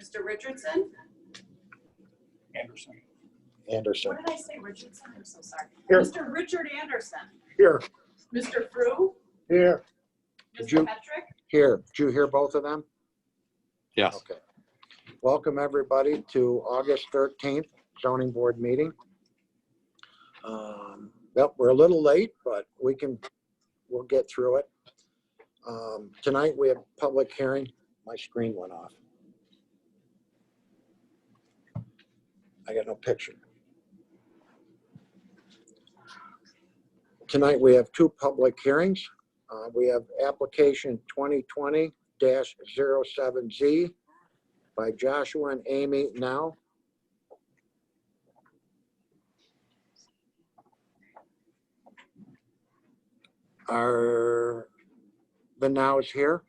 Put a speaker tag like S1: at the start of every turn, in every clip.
S1: Mr. Richardson?
S2: Anderson.
S3: Anderson.
S1: What did I say, Richardson? I'm so sorry.
S3: Here.
S1: Mr. Richard Anderson?
S3: Here.
S1: Mr. Frew?
S3: Here. Did you-
S1: Mr. Petrick?
S3: Here, did you hear both of them?
S4: Yes.
S3: Okay. Welcome, everybody, to August 13th zoning board meeting. Um, Yep, we're a little late, but we can, we'll get through it. Um, Tonight, we have public hearing. My screen went off. I got no picture. Tonight, we have two public hearings. Uh, We have application 2020 dash zero seven Z by Joshua and Amy now. Are, the now is here?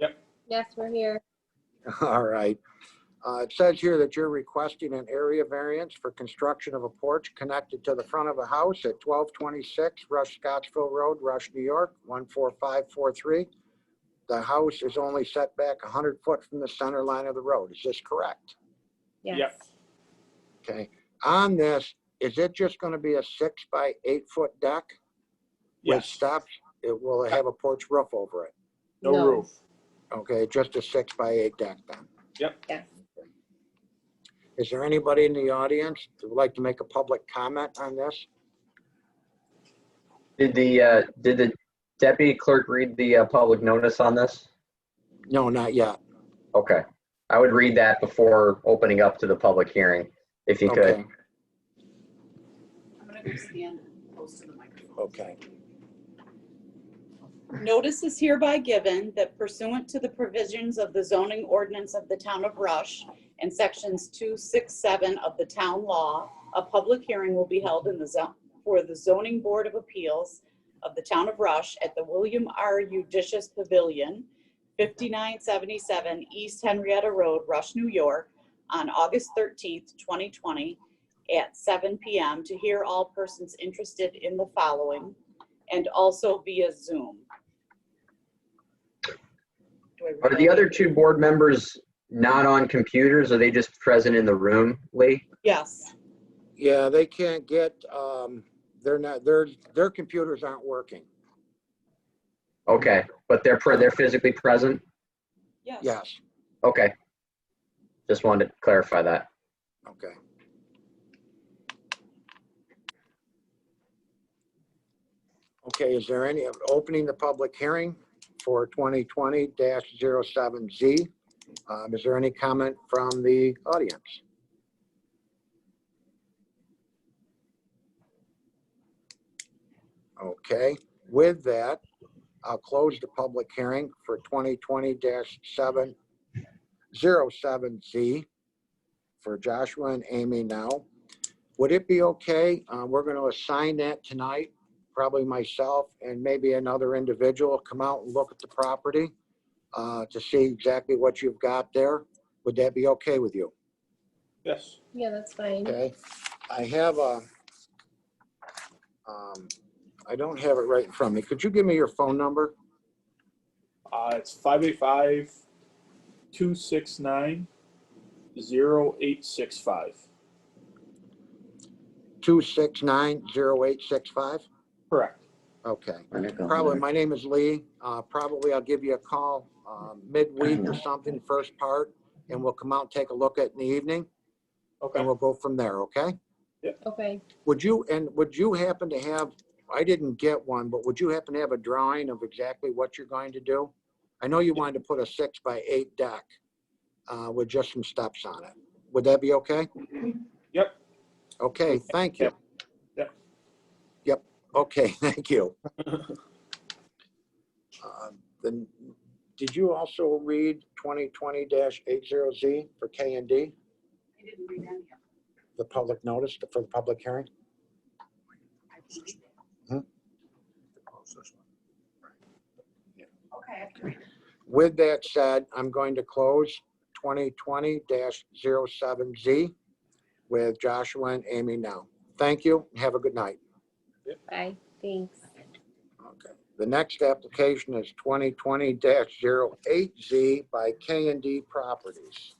S5: Yes, we're here.
S3: All right. Uh, it says here that you're requesting an area variance for construction of a porch connected to the front of a house at twelve twenty-six Rush Scottsville Road, Rush, New York, one four five four three. The house is only set back hundred foot from the center line of the road. Is this correct?
S2: Yep.
S5: Yes.
S3: Okay. On this, is it just gonna be a six by eight foot deck? with
S2: Yes,
S3: Stops, it will have a porch roof over it.
S2: no roof.
S3: Okay, just a six by eight deck then.
S5: Yes.
S3: Is there anybody in the audience that would like to make a public comment on this?
S6: Did the, uh, did the deputy clerk read the uh, public notice on this?
S3: No, not yet.
S6: Okay. I would read that before opening up to the public hearing, if you could.
S3: Okay.
S1: I'm gonna go stand close to the microphone.
S3: Okay,
S7: Notice is hereby given that pursuant to the provisions of the zoning ordinance of the town of Rush and sections two, six, seven of the town law, a public hearing will be held in the zone, for the zoning board of appeals of the town of Rush at the William R. Judicious Pavilion, fifty-nine seventy-seven East Henrietta Road, Rush, New York, on August thirteenth, twenty twenty, at seven PM to hear all persons interested in the following and also via Zoom. Do I
S6: Are
S7: read
S6: the
S7: that?
S6: other two board members not on computers? Are they just present in the room, Lee?
S7: Yes,
S3: yeah, they can't get, um, they're not, their, their computers aren't working.
S6: Okay, but they're, pre- they're physically present?
S7: yes.
S3: Yes,
S6: Okay. Just wanted to clarify that.
S3: okay. Okay, is there any, opening the public hearing for 2020-07Z? Um, Is there any comment from the audience? Okay, with that, I'll close the public hearing for 2020-07, 07Z for Joshua and Amy now. Would it be okay, uh, we're going to assign that tonight, probably myself and maybe another individual come out and look at the property uh, to see exactly what you've got there? Would that be okay with you?
S2: Yes,
S5: Yeah, that's fine.
S3: Okay, I have a, um, I don't have it right in front of me. Could you give me your phone number?
S2: uh, it's five eight five, two six nine, zero eight six five.
S3: 2690865?
S2: Correct.
S3: Okay. Probably, my name is Lee. Uh, Probably I'll give you a call um, midweek or something, first part, and we'll come out and take a look at it in the evening,
S2: Okay.
S3: and we'll go from there, okay?
S5: Okay.
S3: Would you, and would you happen to have, I didn't get one, but would you happen to have a drawing of exactly what you're going to do? I know you wanted to put a six by eight deck uh, with just some steps on it. Would that be okay?
S2: Yep.
S3: Okay, thank you.
S2: Yep.
S3: Yep, okay, thank you. Uh, Then, did you also read 2020-80Z for K and D,
S1: I didn't read any of them.
S3: the public notice for the public hearing?
S1: I believe.
S3: Huh?
S1: Okay, I have to read it.
S3: With that said, I'm going to close 2020-07Z with Joshua and Amy now. Thank you. and Have a good night.
S5: Bye. Thanks.
S3: Okay. The next application is 2020-08Z by K and D Properties.